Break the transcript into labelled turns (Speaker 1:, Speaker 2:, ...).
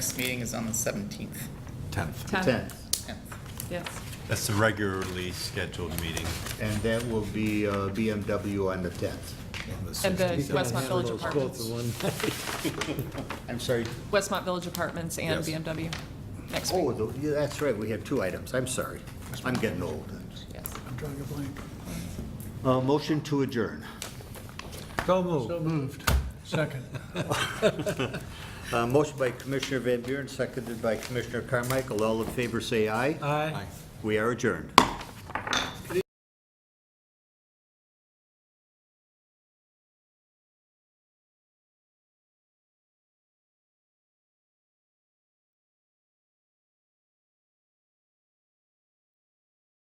Speaker 1: Next meeting is on the 17th,
Speaker 2: 10th.
Speaker 3: Ten.
Speaker 4: 10th,
Speaker 1: 10th.
Speaker 3: Yes.
Speaker 2: That's the regularly scheduled meeting.
Speaker 4: and that will be uh, BMW on the 10th.
Speaker 3: And the Westmont Village
Speaker 5: Those both
Speaker 3: Apartments,
Speaker 5: in one night.
Speaker 4: I'm sorry,
Speaker 3: Westmont Village Apartments and
Speaker 2: Yes.
Speaker 3: BMW next
Speaker 4: oh,
Speaker 3: week.
Speaker 4: tho- yeah, that's right, we had two items, I'm sorry. I'm getting old.
Speaker 3: Yes.
Speaker 5: I'm drawing a blank.
Speaker 4: Uh, Motion to adjourn.
Speaker 5: So moved. So moved. Second.
Speaker 4: Uh, Motion by Commissioner Van Buren, seconded by Commissioner Carmichael. All in favor, say aye.
Speaker 5: Aye.
Speaker 4: We are adjourned.